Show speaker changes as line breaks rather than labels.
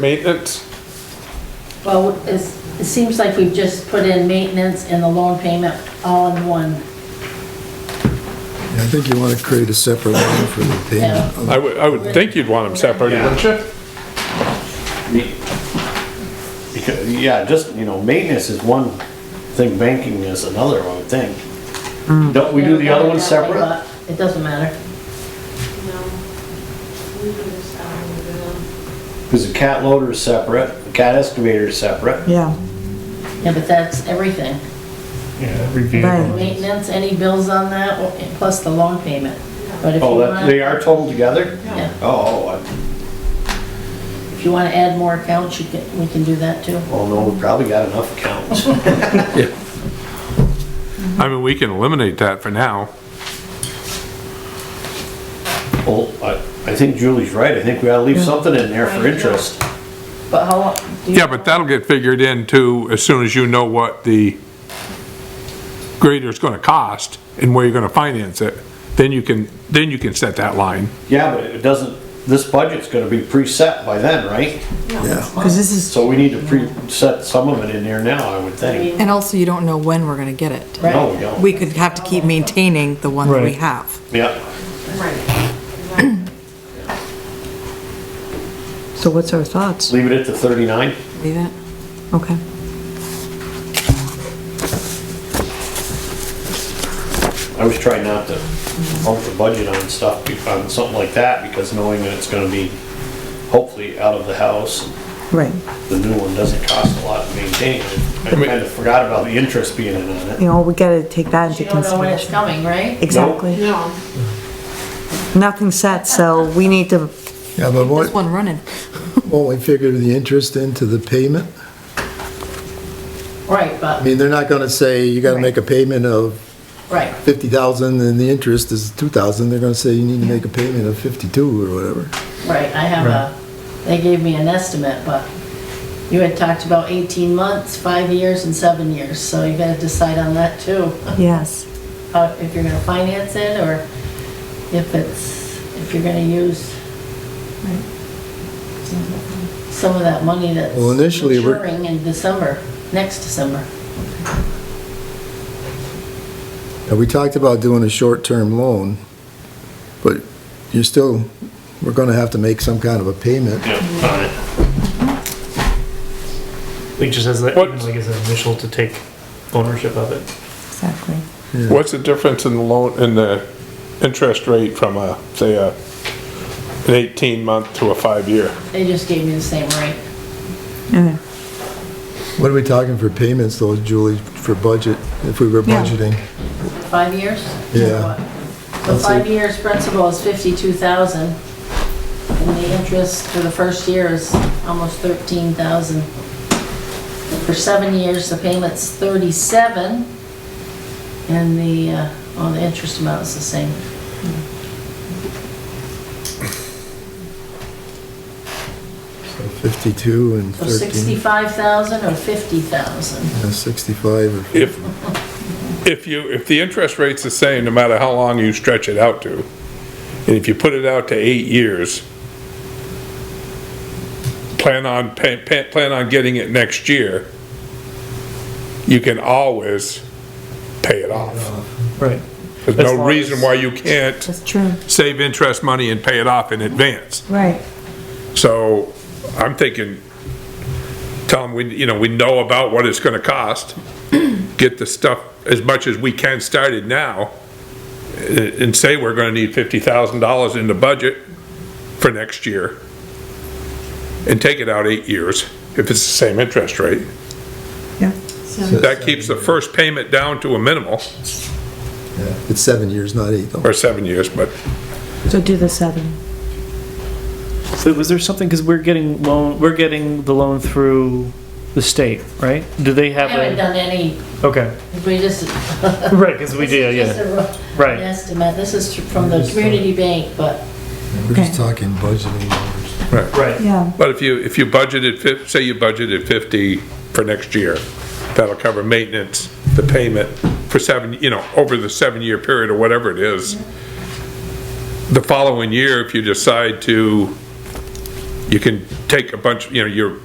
Maintenance?
Well, it's, it seems like we've just put in maintenance and the loan payment all in one.
I think you want to create a separate line for the payment.
I would, I would think you'd want them separate, wouldn't you?
Me- Because, yeah, just, you know, maintenance is one thing, banking is another, I would think. Don't we do the other one separate?
But It doesn't matter.
No. We do this out of the bill.
Because the cat loader is separate, the cat excavator is separate.
Yeah,
Yeah, but that's everything.
Yeah, review.
right.
Maintenance, any bills on that, plus the loan payment. But if you
Oh, that,
want,
they are totaled together?
yeah,
Oh, I-
if you want to add more accounts, you can, we can do that too.
well, oh, no, we probably got enough accounts.
I mean, we can eliminate that for now.
Well, I, I think Julie's right, I think we ought to leave something in there for interest.
But how long? do you-
Yeah, but that'll get figured in too, as soon as you know what the grader's gonna cost and where you're gonna finance it. Then you can, then you can set that line.
Yeah, but it doesn't, this budget's gonna be preset by then, right?
Yeah,
Because this is,
So we need to preset some of it in there now, I would think.
And also, you don't know when we're gonna get it.
No, we don't.
We could have to keep maintaining the one that we
Right.
have.
Yeah.
Right. Exactly.
so what's our thoughts?
Leave it at the thirty-nine?
Leave it? Okay.
I always try not to bump the budget on stuff, be- on something like that, because knowing that it's gonna be hopefully out of the house,
Right,
the new one doesn't cost a lot to maintain. I
mean-
kind of forgot about the interest being in on it.
you know, we gotta take that into
You don't know when it's
consideration.
coming, right?
Exactly.
No.
Nothing's set, so we need to,
Yeah, but
There's
won't,
one running.
won't we figure the interest into the payment?
Right,
I
but,
mean, they're not gonna say, you gotta make a payment of
right.
fifty thousand and the interest is two thousand, they're gonna say you need to make a payment of fifty-two or whatever.
Right, I have a, they gave me an estimate, but you had talked about 18 months, five years, and seven years, so you gotta decide on that too.
yes,
How- uh, If you're gonna finance it, or if it's, if you're gonna use some of that money that's
Well, initially, we're-
maturing in December, next December.
Now, we talked about doing a short-term loan, but you're still, we're gonna have to make some kind of a payment.
Yeah, on it.
Like just as that,
What-
even like as an initial to take ownership of it.
exactly.
What's the difference in the loan, in the interest rate from a, say, a, an eighteen month to a five year?
They just gave me the same rate.
Yeah.
What are we talking for payments though, Julie, for budget, if we were
Yeah.
budgeting?
Five years?
Yeah.
So
That's
five
it.
years principal is fifty-two thousand, and the interest for the first year is almost thirteen thousand. For seven years, the payment's thirty-seven, and the, uh, well, the interest amount is the same.
Fifty-two and
So
thirteen,
sixty-five thousand or fifty thousand?
Yeah, sixty-five, or-
If, if you, if the interest rate's the same, no matter how long you stretch it out to, and if you put it out to eight years, plan on, pa- pa- plan on getting it next year, you can always pay it off.
Right.
There's
As
no
long
reason
as-
why you can't
That's true.
save interest money and pay it off in advance.
Right,
So I'm thinking, tell them, we, you know, we know about what it's gonna cost. Get the stuff as much as we can started now eh, and say we're gonna need fifty thousand dollars in the budget for next year. And take it out eight years if it's the same interest rate.
yeah.
That keeps the first payment down to a minimal,
yeah, it's seven years, not eight though.
or seven years, but
So do the seven.
So was there something, because we're getting loan, we're getting the loan through the state, right? Do they
I
have
haven't
a?
done any,
Okay,
we just.
right, because we did,
Just
yeah,
a rough
right.
estimate, this is from the community bank, but
We're just
Okay.
talking budgeting numbers.
Right.
Yeah,
But if you, if you budgeted, fif- say you budgeted 50 for next year, that'll cover maintenance, the payment for seven, you know, over the seven-year period or whatever it is. The following year, if you decide to you can take a bunch, you know, your